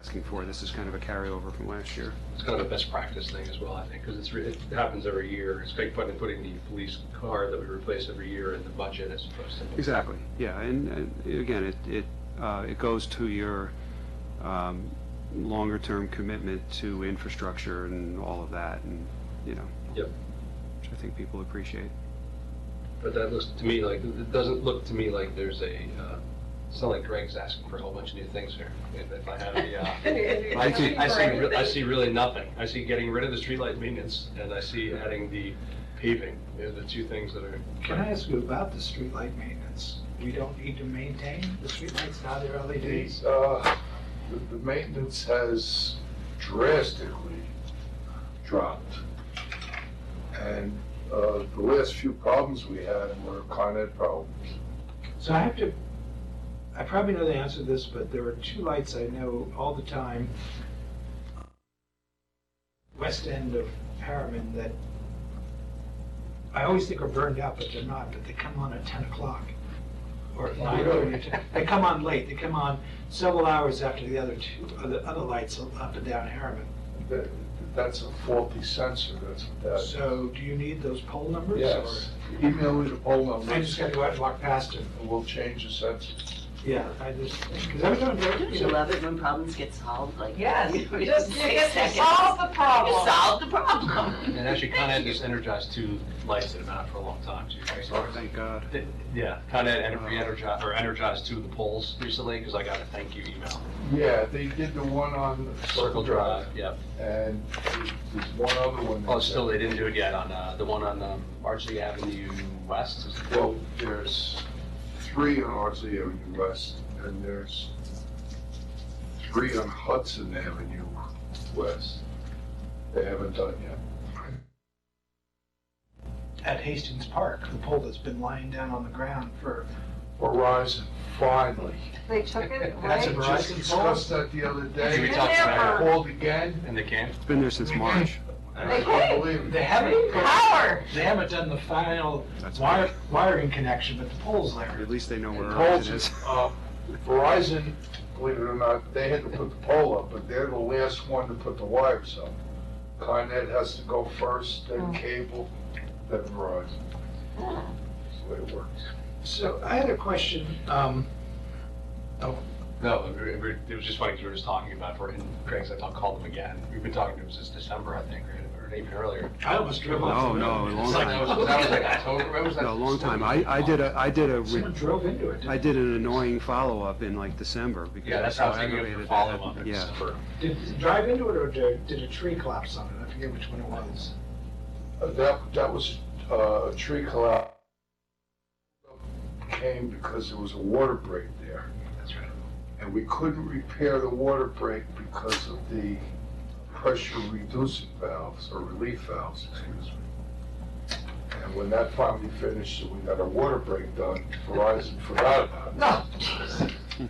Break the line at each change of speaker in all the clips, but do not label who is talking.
asking for. This is kind of a carryover from last year.
It's kind of a best practice thing as well, I think, because it's, re- it happens every year. It's like putting, putting the police car that we replace every year in the budget as opposed to.
Exactly, yeah, and, and again, it, it, uh, it goes to your, um, longer-term commitment to infrastructure and all of that, and, you know.
Yep.
Which I think people appreciate.
But that looks to me like, it doesn't look to me like there's a, uh, it's not like Greg's asking for a whole bunch of new things here. If if I have the, uh, I see, I see, re- I see really nothing. I see getting rid of the streetlight maintenance, and I see adding the paving. They're the two things that are.
Can I ask you about the streetlight maintenance? We don't need to maintain the streetlights, now they're LEDs?
These, uh, the, the maintenance has drastically dropped. And, uh, the last few problems we had were Con Ed problems.
So I have to, I probably know the answer to this, but there are two lights I know all the time, west end of Harriman, that I always think are burned out, but they're not, but they come on at 10 o'clock, or at 9, or 10. They come on late, they come on several hours after the other two, other other lights up and down Harriman.
That, that's a faulty sensor, that's what that is.
So do you need those poll numbers? or-
Yes, email me the poll number.
I just gotta go out and walk past it.
And we'll change the sensor.
Yeah, I just, because every time.
Don't you love it when problems get solved, like?
Yes,
you know, in
just, you
six
get to
seconds?
solve the
You
problem.
solved the problem.
And actually, Con Ed just energized two lights that have been out for a long time, too. right?
So thank God.
Th- Yeah, Con Ed ener- re-energized, or energized two of the poles recently, because I got a thank you email.
Yeah, they did the one on Circle Drive,
Yep.
and there's- there's one other one.
Oh,
that's-
still, they didn't do it yet on, uh, the one on, um, Archie Avenue West. is-
Well, there's three on Ardsley Avenue West, and there's three on Hudson Avenue West. They haven't done yet.
At Hastings Park, the pole that's been lying down on the ground for,
Verizon, finally.
They took it
That's
away.
a-
Just
Verizon
discussed that the other
We
day.
talked
I
about
Never.
it.
Called again,
And they came?
It's been there since March.
and I can't believe
they
it.
haven't.
Power.
They haven't done the final
That's
wire, wiring connection, but the pole's there.
At least they know where
The
ours
poles,
is.
uh, Verizon, believe it or not, they had to put the pole up, but they're the last one to put the wires up. Con Ed has to go first, then cable, then Verizon. That's the way it works.
So I had a question, um,
No, it we- we- it was just funny because we were just talking about, it, and Craig's, I thought, called them again. We've been talking to him since December, I think, or or even earlier.
I almost drove
No,
off. the
no, a
road.
It's
long
like, that
time.
was that was like October, when was that?
No, a long time. I, I did a, I did a, re-
Someone drove into it.
I did an annoying follow-up in like December because
Yeah,
Oh, I was
that's
so
how I was thinking of
aggravated.
the
that I-
follow-up in
Yeah,
December.
Did it drive into it or did did a tree collapse on it? I forget which one it was.
Uh, That, that was uh, a tree collapse. Came because there was a water break there,
That's right.
and we couldn't repair the water break because of the pressure reducing valves, or relief valves, excuse me. And when that finally finished, and we got a water break done, Verizon forgot about it.
No.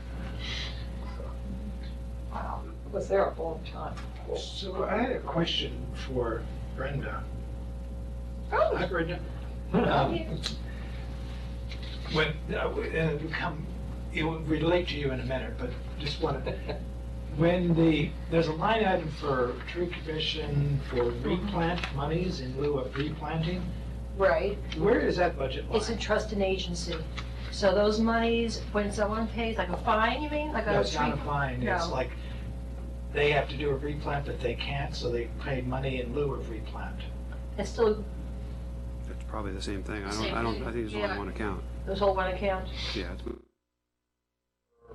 Wow, I was there a long time.
So I had a question for Brenda.
Oh.
Hi, Brenda. Um, When, uh, w- and it'll come, it will relate to you in a minute, but just wanted, when the, there's a line item for tree commission for
Mm-hmm.
replant monies in lieu of replanting,
Right,
where is that budget line?
it's a trust and agency. So those monies, when someone pays, like a fine, you mean, like
No,
a
it's not a
tree?
fine, it's
No.
like, they have to do a replant, but they can't, so they pay money in lieu of replant.
It's still,
it's probably the same thing. I don't,
Same
I don't,
thing,
I think there's
yeah.
only one account.
those whole one account.
Yeah, it's
for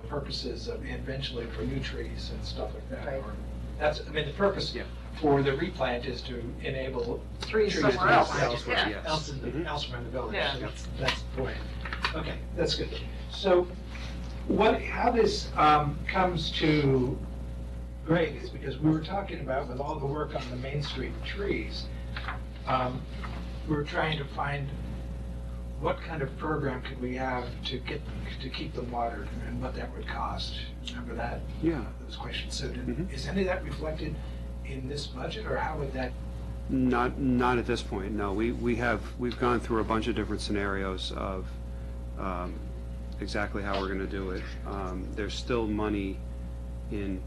purposes of eventually for new trees and stuff like that.
Right.
or- That's, I mean, the purpose
Yeah.
for the replant is to enable
Three
Trees
somewhere
else.
else.
elsewhere,
Yeah.
else in the,
Mhm.
elsewhere in the village.
Yeah.
So That's, that's the point. Okay, that's good. So what, how this um, comes to Greg is because we were talking about with all the work on the Main Street trees, um, we were trying to find what kind of program could we have to get, to keep them watered and what that would cost. Remember that?
yeah.
those questions. So did-
Mhm.
is any of that reflected in this budget, or how would that,
Not, not at this point, no. We, we have, we've gone through a bunch of different scenarios of um, exactly how we're going to do it. Um, There's still money in